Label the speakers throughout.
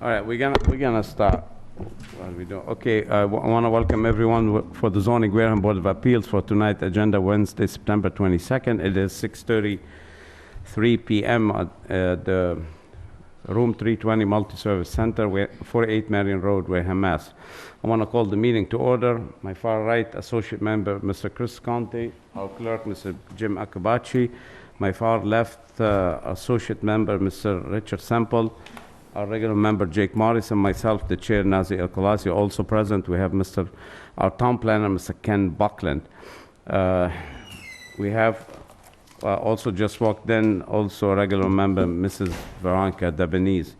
Speaker 1: All right, we're gonna, we're gonna start. What are we doing? Okay, uh, I want to welcome everyone w- for the zoning Wareham Board of Appeals for tonight, agenda Wednesday, September 22nd. It is 6:33 PM at uh, the Room 320 Multi-Service Center, where- 48 Marion Road, Wareham, Mass. I want to call the meeting to order. My far right, Associate Member, Mr. Chris Conti, our clerk, Mr. Jim Akabachi. My far left, uh, Associate Member, Mr. Richard Semple, our regular member, Jake Morris, and myself, the Chair, Nazi El Khalasi, also present. We have Mr., our Town Planner, Mr. Ken Buckland. Uh, We have uh, also just walked in, also a regular member, Mrs. Veronica Debonese.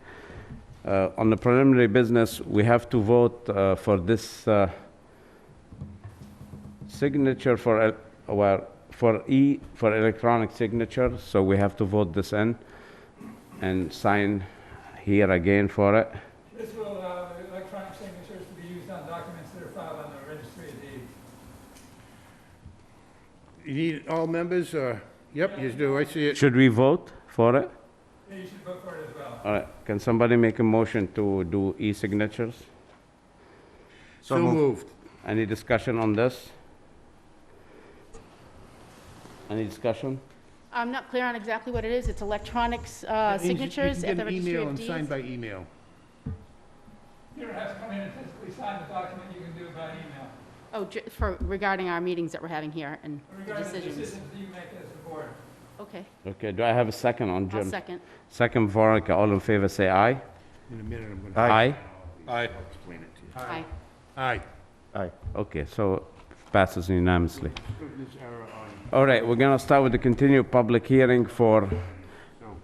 Speaker 1: Uh, On the preliminary business, we have to vote uh, for this uh, signature for, el- well, for E, for electronic signature, so we have to vote this in and sign here again for it.
Speaker 2: This will allow electronic signatures to be used on documents that are filed on the registry of deeds.
Speaker 3: You need all members, or, yep, you do, I see it.
Speaker 1: Should we vote for it?
Speaker 2: Yeah, You should vote for it as well.
Speaker 1: All right, can somebody make a motion to do e-signatures?
Speaker 3: So moved.
Speaker 1: Any discussion on this? Any discussion?
Speaker 4: I'm not clear on exactly what it is. It's electronics uh,
Speaker 3: That means you-
Speaker 4: signatures at the registry
Speaker 3: You
Speaker 4: of
Speaker 3: can get an email and sign
Speaker 4: deeds.
Speaker 3: by email.
Speaker 2: You don't have to come in and physically sign the document, you can do it by email.
Speaker 4: Oh, ju- for, regarding our meetings that we're having here and the
Speaker 2: Regarding the
Speaker 4: decisions.
Speaker 2: decisions that you make as a board.
Speaker 4: Okay,
Speaker 1: Okay, do I have a second on
Speaker 4: I'll
Speaker 1: Jim?
Speaker 4: second.
Speaker 1: Second, Veronica, all in favor, say aye.
Speaker 3: In a minute, I'm gonna.
Speaker 1: Aye.
Speaker 3: Aye. I'll explain it to you.
Speaker 4: Aye.
Speaker 3: Aye.
Speaker 1: Aye. Okay, so passes unanimously.
Speaker 3: This error on-
Speaker 1: All right, we're gonna start with the continued public hearing for,
Speaker 3: no,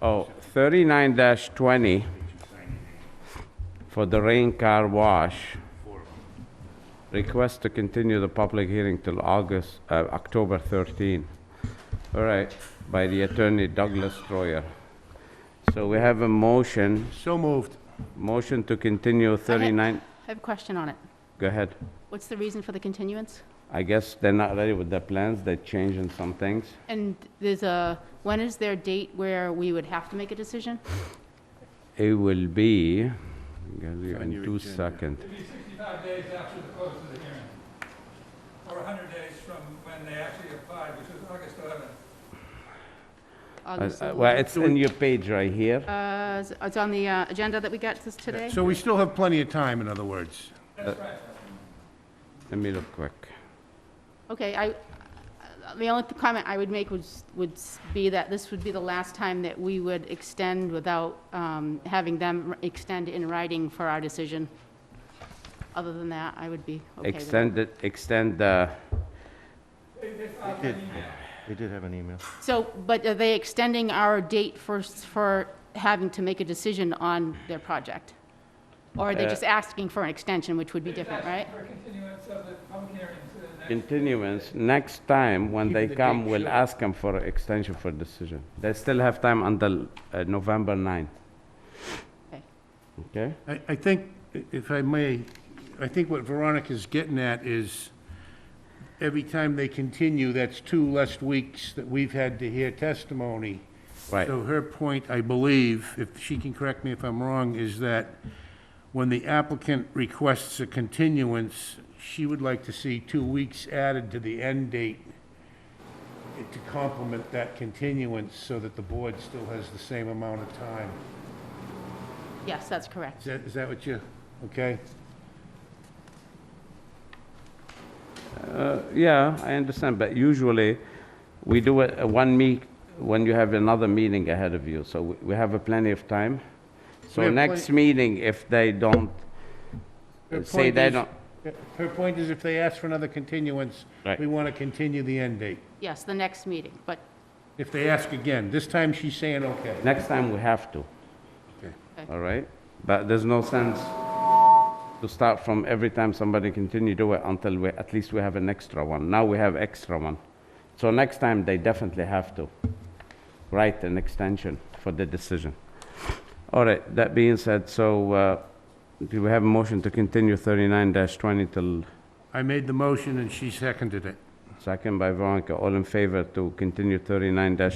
Speaker 1: oh, 39-20
Speaker 3: you should sign it,
Speaker 1: for the rain car wash.
Speaker 3: four of them.
Speaker 1: Request to continue the public hearing till August, uh, October 13. All right, by the attorney Douglas Troyer. So we have a motion,
Speaker 3: So moved.
Speaker 1: motion to continue 39,
Speaker 4: I have a question on it.
Speaker 1: go ahead.
Speaker 4: What's the reason for the continuance?
Speaker 1: I guess they're not ready with their plans, they're changing some things.
Speaker 4: And there's a, when is their date where we would have to make a decision?
Speaker 1: Uh, It will be, I'll give you in
Speaker 3: your
Speaker 1: two
Speaker 3: agenda.
Speaker 1: seconds.
Speaker 2: It'd be 65 days after the close of the hearing, or 100 days from when they actually applied, which was August 11th.
Speaker 1: Uh,
Speaker 4: August
Speaker 1: uh,
Speaker 4: eleventh.
Speaker 1: Well, it's in your page right here.
Speaker 4: Uh, is- It's on the uh, agenda that we got this today?
Speaker 3: So we still have plenty of time, in other words.
Speaker 2: That's right.
Speaker 1: Let me look quick.
Speaker 4: Okay, I, the only comment I would make would, would be that this would be the last time that we would extend without um, having them extend in writing for our decision. Other than that, I would be okay with it.
Speaker 1: Extend it, extend the,
Speaker 2: They they filed an email.
Speaker 5: They did have an email.
Speaker 4: So, but are they extending our date for, s- for having to make a decision on their project? Or are they
Speaker 1: Uh,
Speaker 4: just asking for an extension, which would be different,
Speaker 2: It's
Speaker 4: right?
Speaker 2: asking For continuance of the public hearing to the next.
Speaker 1: continuance, next time when they
Speaker 3: Keeping the
Speaker 1: come,
Speaker 3: date
Speaker 1: we'll
Speaker 3: short.
Speaker 1: ask them for extension for decision. They still have time until uh, November 9th.
Speaker 4: Okay.
Speaker 1: Okay?
Speaker 3: I, I think, i- if I may, I think what Veronica's getting at is, every time they continue, that's two less weeks that we've had to hear testimony.
Speaker 1: Right.
Speaker 3: So her point, I believe, if she can correct me if I'm wrong, is that when the applicant requests a continuance, she would like to see two weeks added to the end date to complement that continuance so that the board still has the same amount of time.
Speaker 4: Yes, that's
Speaker 3: Is
Speaker 4: correct.
Speaker 3: that, is that what you, okay?
Speaker 1: Uh, Yeah, I understand, but usually, we do it uh, one meet, when you have another meeting ahead of you, so we- we have a plenty of time. So
Speaker 3: have
Speaker 1: next meeting, if they don't,
Speaker 3: Her
Speaker 1: say
Speaker 3: point
Speaker 1: they
Speaker 3: is-
Speaker 1: don't,
Speaker 3: Her point is if they ask for another continuance,
Speaker 1: Right.
Speaker 3: we want to continue the end date.
Speaker 4: Yes, the next meeting, but,
Speaker 3: If they ask again, this time she's saying okay.
Speaker 1: next time we have to.
Speaker 3: Okay.
Speaker 4: Okay.
Speaker 1: All right? But there's no sense to start from every time somebody continue do it until we, at least we have an extra one. Now we have extra one. So next time, they definitely have to write an extension for the decision. All right, that being said, so uh, do we have a motion to continue 39-20 till
Speaker 3: I made the motion and she seconded it.
Speaker 1: second by Veronica? All in favor to continue 39-20